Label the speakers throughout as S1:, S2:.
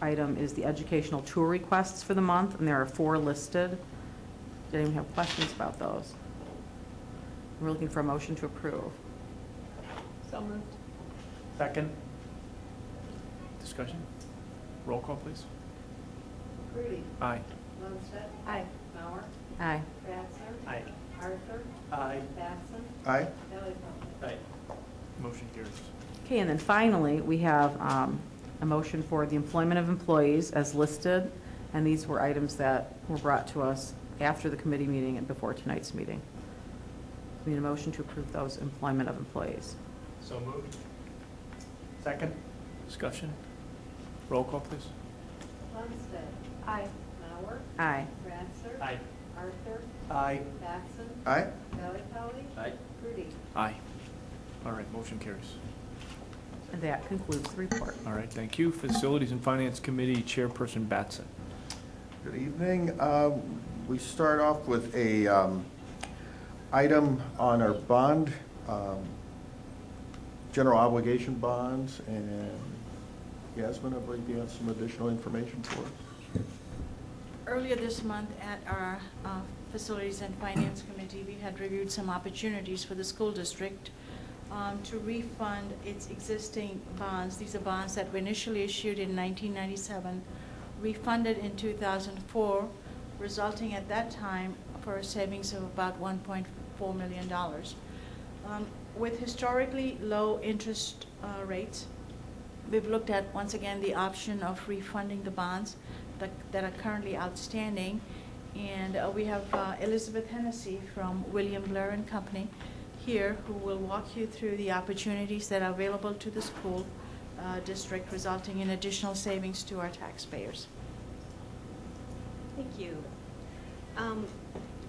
S1: item is the educational tour requests for the month, and there are four listed. Did anyone have questions about those? We're looking for a motion to approve.
S2: So moved.
S3: Second. Discussion? Roll call, please.
S4: Rudy.
S3: Aye.
S4: Lundsted.
S2: Aye.
S4: Mauer.
S1: Aye.
S4: Batson.
S3: Aye.
S4: Arthur.
S3: Aye.
S4: Batson.
S5: Aye.
S4: Valleyfeld.
S3: Aye. Motion carries.
S1: Okay, and then finally, we have um, a motion for the employment of employees as listed, and these were items that were brought to us after the committee meeting and before tonight's meeting. We Need a motion to approve those employment of employees.
S3: So moved. Second. Discussion? Roll call, please.
S4: Lundsted.
S2: Aye.
S4: Mauer.
S1: Aye.
S4: Ratzer. Arthur.
S3: Aye.
S4: Batson.
S5: Aye.
S4: Valleyfeld.
S3: Aye.
S4: Rudy.
S3: Aye. All right, motion carries.
S1: And that concludes the report.
S3: All right, thank you. Facilities and Finance Committee Chairperson Batson.
S5: Good evening. Uh, We start off with a um, item on our bond, um, general obligation bonds, and Yasmin, I believe you have some additional information for us.
S6: Earlier this month, at our uh, Facilities and Finance Committee, we had reviewed some opportunities for the school district um, to refund its existing bonds. These are bonds that were initially issued in 1997, refunded in 2004, resulting at that time for a savings of about $1.4 million. Um, With historically low interest uh, rates, We've looked at, once again, the option of refunding the bonds that that are currently outstanding. And uh, we have uh, Elizabeth Hennessy from William Blair and Company here, who will walk you through the opportunities that are available to the school uh, district, resulting in additional savings to our taxpayers.
S7: Thank you. Um,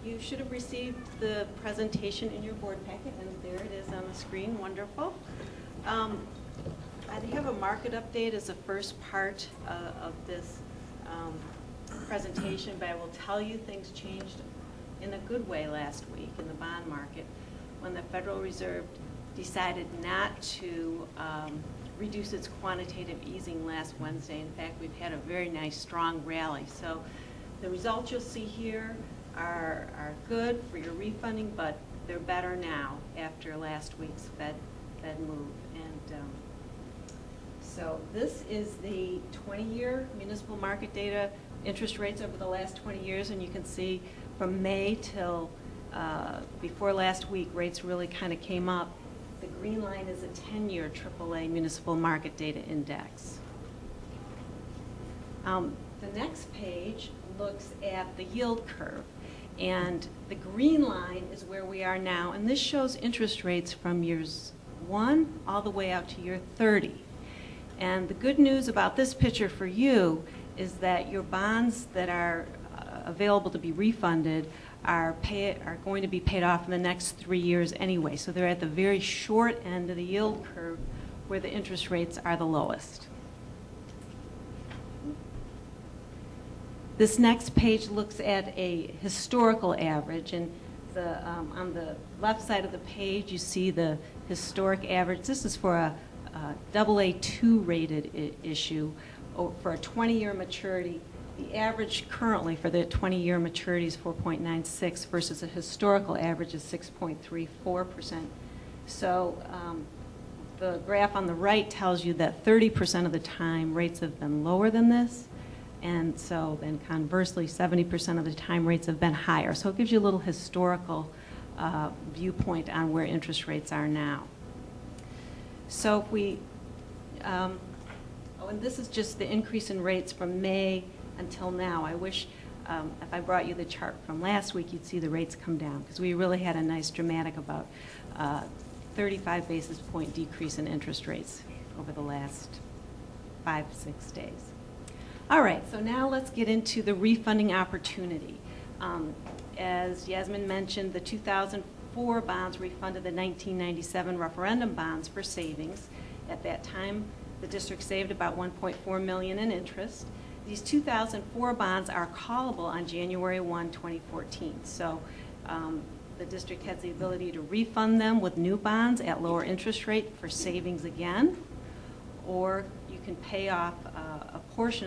S7: You should have received the presentation in your board packet, and there it is on the screen, wonderful. Um, I have a market update as the first part uh, of this um, presentation, but I will tell you, things changed in a good way last week in the bond market when the Federal Reserve decided not to um, reduce its quantitative easing last Wednesday. In fact, we've had a very nice, strong rally. So the results you'll see here are, are good for your refunding, but they're better now after last week's Fed, Fed move. And um, so this is the 20-year municipal market data, interest rates over the last 20 years, and you can see from May till uh, before last week, rates really kind of came up. The green line is a 10-year AAA municipal market data index. Um, The next page looks at the yield curve, and the green line is where we are now, and this shows interest rates from years one all the way out to year 30. And the good news about this picture for you is that your bonds that are uh, available to be refunded are pay, are going to be paid off in the next three years anyway. So they're at the very short end of the yield curve where the interest rates are the lowest. This next page looks at a historical average, and the, um, on the left side of the page, you see the historic average. This is for a double A two rated i- issue, o- for a 20-year maturity. The average currently for the 20-year maturity is 4.96 versus a historical average is 6.34%. So um, the graph on the right tells you that 30% of the time, rates have been lower than this. And so then conversely, 70% of the time rates have been higher. So it gives you a little historical uh, viewpoint on where interest rates are now. So if we, um, oh, and this is just the increase in rates from May until now. I wish, um, if I brought you the chart from last week, you'd see the rates come down, because we really had a nice dramatic about uh, 35 basis point decrease in interest rates over the last five, six days. All right, so now let's get into the refunding opportunity. Um, As Yasmin mentioned, the 2004 bonds refunded the 1997 referendum bonds for savings. At that time, the district saved about 1.4 million in interest. These 2004 bonds are callable on January 1, 2014. So um, the district has the ability to refund them with new bonds at lower interest rate for savings again, or you can pay off uh, a portion